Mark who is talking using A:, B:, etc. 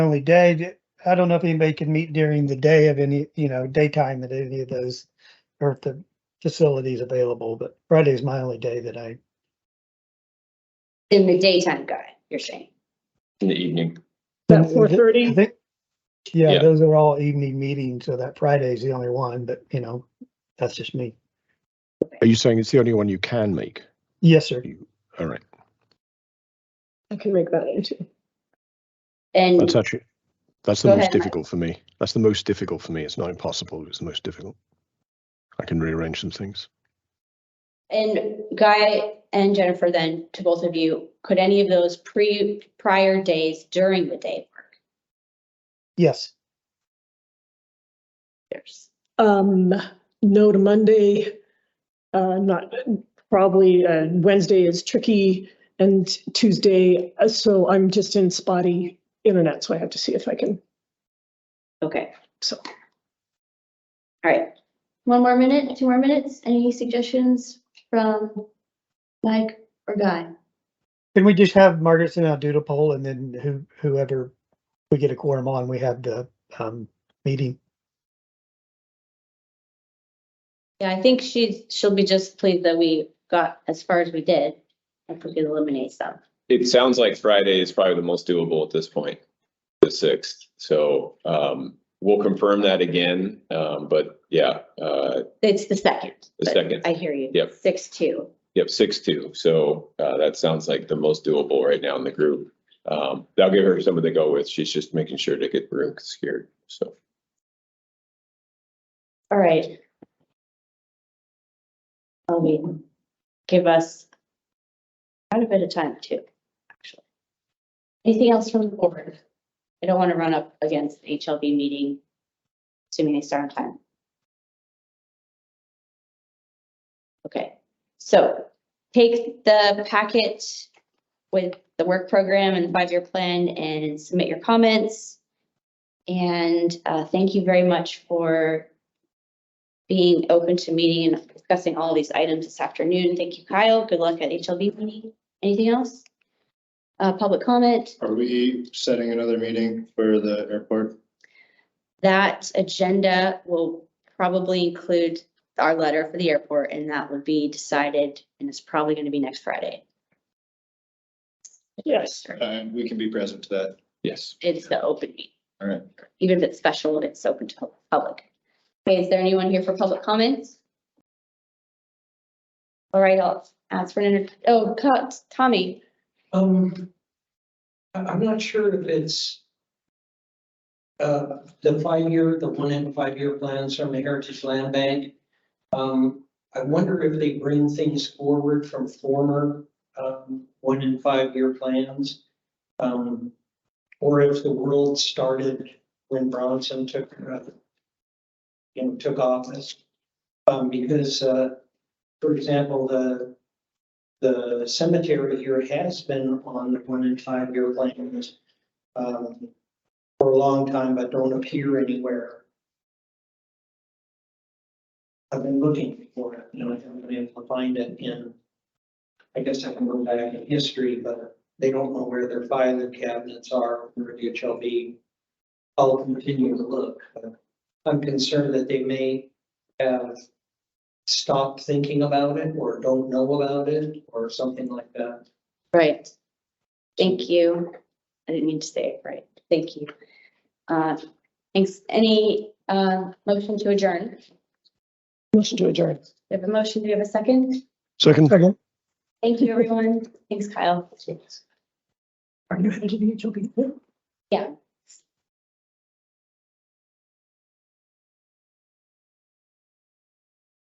A: only day. d- I don't know if anybody can meet during the day of any, you know, daytime at any of those or if the facility's available, but Friday's my only day that I,
B: in the daytime guy, you're saying?
C: in the evening.
A: About
C: Mm-hmm.
D: About four
A: I
D: thirty,
A: think. Yeah,
C: Yeah.
A: those are all evening meetings, so that Friday's the only one, but you know, that's just me.
E: Are you saying it's the only one you can make?
A: Yes, sir.
E: All right,
D: I can make that into.
B: And
E: that's actually, that's the
B: Go
E: most
B: ahead, Mike.
E: difficult for me. That's the most difficult for me. It's not impossible, it's the most difficult. I can rearrange some things.
B: And Guy and Jennifer, then to both of you, could any of those pre, prior days during the day work?
A: Yes.
B: There's-
D: Um, no to Monday, uh, not, probably, uh, Wednesday is tricky and Tuesday, uh, so I'm just in spotty internet, so I have to see if I can,
B: Okay,
D: so.
B: all right. One more minute, two more minutes. Any suggestions from Mike or Guy?
A: Can we just have Margaret send out doodle poll and then who, whoever we get a quorum on, we have the, um, meeting?
B: Yeah, I think she's, she'll be just pleased that we got as far as we did. If we could eliminate some.
C: It sounds like Friday is probably the most doable at this point, the sixth. So um, we'll confirm that again. Um, but yeah, uh,
B: It's the second.
C: The
B: but
C: second.
B: I hear you.
C: Yep.
B: Six, two.
C: yep, six two. So uh, that sounds like the most doable right now in the group. Um, that'll give her something to go with. She's just making sure to get the room secured. So
B: All right. I mean, give us quite a bit of time too, actually. Anything else from the board? I don't want to run up against the HLB meeting, assuming they start on time. Okay, so take the packet with the work program and the five-year plan and submit your comments. And uh, thank you very much for being open to meeting and discussing all these items this afternoon. Thank you, Kyle. Good luck at HLB meeting. Anything else? Uh, public comment,
F: Are we setting another meeting for the airport?
B: that agenda will probably include our letter for the airport and that would be decided and it's probably going to be next Friday.
D: Yes.
F: Uh, we can be present to that.
C: yes,
B: It's the open meeting.
F: All right.
B: Even if it's special, it's open to the public. Okay, is there anyone here for public comments? All right, I'll ask for an, inter- oh, Co- Tommy,
G: Um, I, I'm not sure if it's uh, the five-year, the one and five-year plans from the Heritage Land Bank. Um, I wonder if they bring things forward from former, um, one and five-year plans. Um, or if the world started when Bronson took, uh, you know, took office. Um, because, uh, for example, the the cemetery here has been on the one and five year plans um, for a long time, but don't appear anywhere. I've been looking for it, and I haven't been able to find it in, I guess I can go back in history, but they don't know where their filing cabinets are, where the HLB. I'll continue to look, but I'm concerned that they may have stopped thinking about it or don't know about it or something like that.
B: Right. Thank you. I didn't mean to say it right. Thank you. Uh, Thanks. Any uh, motion to adjourn?
D: Motion to adjourn.
B: We have a motion. Do we have a second?
E: Second?
B: Thank you, everyone. Thanks, Kyle.
D: Are you headed to the HOP?
B: Yeah.